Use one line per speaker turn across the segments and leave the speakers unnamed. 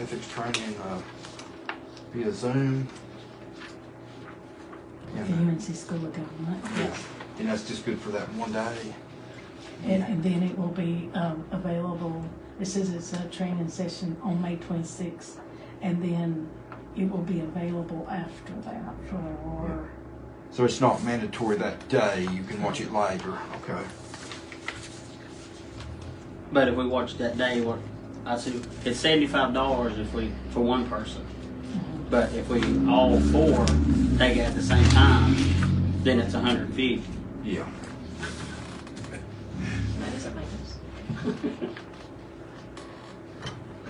ethics training uh, via Zoom.
at the
And, uh,
UNC School of Government.
yeah, and that's just good for that one day.
And, and then it will be, um, available, it says it's a training session on May twenty-sixth, and then it will be available after that for,
So it's not mandatory that day. You can watch it later. Okay.
But if we watch that day, what I see it's seventy five dollars if we for one person. But if we all four take it at the same time, then it's a hundred fifty.
Yeah.
That doesn't make sense.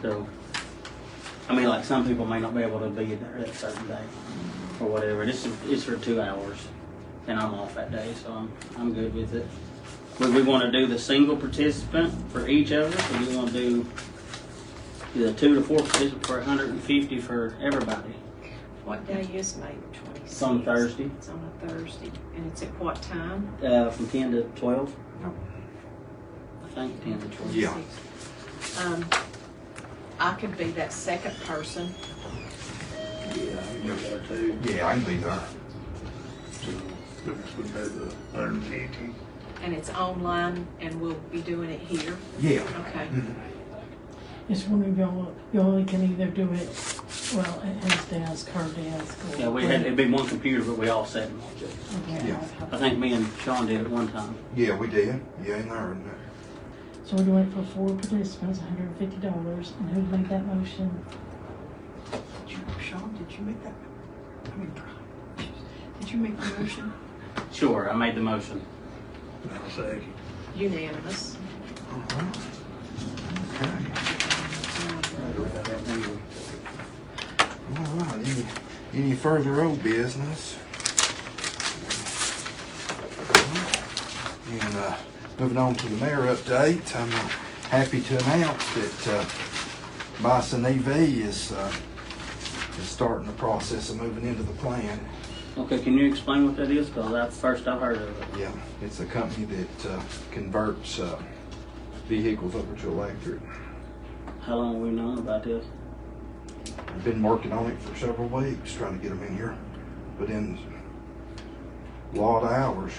So I mean like some people may not be able to be there that certain day or whatever. It's it's for two hours and I'm off that day, so I'm I'm good with it. Would we want to do the single participant for each of us or do we want to do the two to four participants for hundred and fifty for everybody?
What day is May twenty-sixth?
It's on Thursday.
It's on a Thursday, and it's at what time?
Uh, from ten to twelve?
No.
I think ten to twelve.
Yeah.
26th. Um, I could be that second person.
Yeah, I can go there too.
Yeah, I can be there.
So, This would be the hundred and fifty.
And it's online, and we'll be doing it here,
Yeah.
okay?
it's one of y'all, y'all can either do it, well, at his desk, her desk. or-
Yeah, we had, it'd be one computer, but we all sat and watched it.
Okay.
I think me and Sean did it one time.
Yeah, we did. Yeah, in there. and, uh,
So we're doing it for four participants, hundred and fifty dollars, and who made that motion?
Did you, Sean, did you make that? I mean, Brian, did you make the motion?
Sure, I made the motion.
I'll say,
Unanimous.
alright. Okay.
Um,
All right. Any, any further old business? And uh, moving on to the mayor update, I'm uh, happy to announce that uh, Bison EV is uh, is starting the process of moving into the plan.
Okay, can you explain what that is? Cause that's the first I've heard of it.
Yeah, it's a company that uh, converts uh, vehicles over to electric.
How long have we known about this?
I've been working on it for several weeks, trying to get them in here, but in a lot of hours.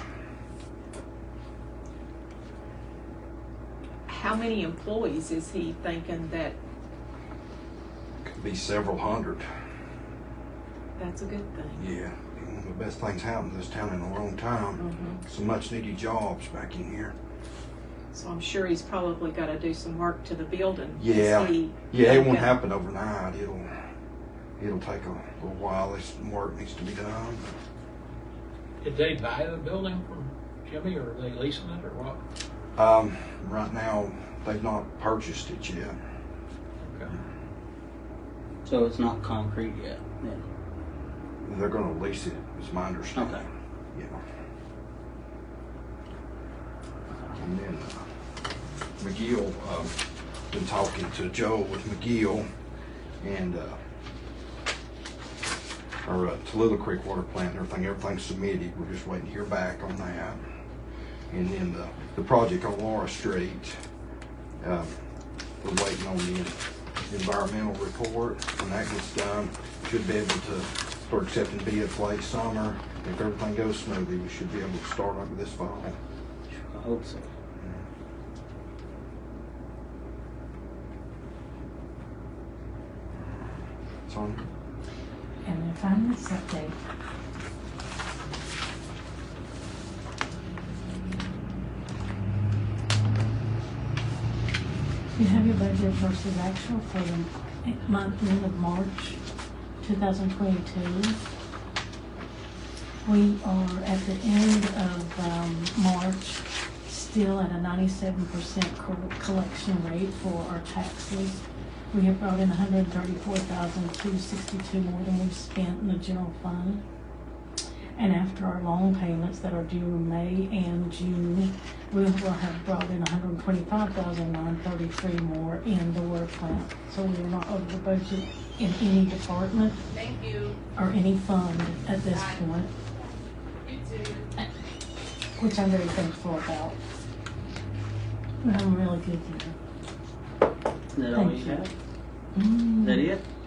How many employees is he thinking that,
Could be several hundred.
that's a good thing?
Yeah. One of the best things happened to this town in a long time.
Mhm.
Some much needed jobs back in here.
So I'm sure he's probably gotta do some work to the building. Is
Yeah.
he-
Yeah, it won't
Okay.
happen overnight. It'll it'll take a little while. There's some work needs to be done.
Did they buy the building from Jimmy or are they leasing it or what?
Um, right now they've not purchased it yet.
Okay.
So it's not concrete yet? Yeah.
They're gonna lease it, is my understanding.
Okay.
Yeah. And then uh, McGill, uh, been talking to Joe with McGill and, uh, our uh, Tallulah Creek Water Plant and everything, everything's submitted. We're just waiting to hear back on that. And then the, the project on Laura Street, uh, we're waiting on the environmental report. When that gets done, should be able to start accepting bids late summer. If everything goes smoothly, we should be able to start up this fall.
I hope so.
So,
And then finally, update. You have your budget versus actual for the month end of March, two thousand twenty-two. We are at the end of, um, March, still at a ninety-seven percent collection rate for our taxes. We have brought in 134,262 more than we've spent in the general fund. And after our loan payments that are due in May and June, we will have brought in 125,933 more in the water plant. So we are not over budget in any department
Thank you.
or any fund at this point
You too.
which I'm very thankful about. We have a really good year.
Is that all you
Thank you.
have?
Is that it?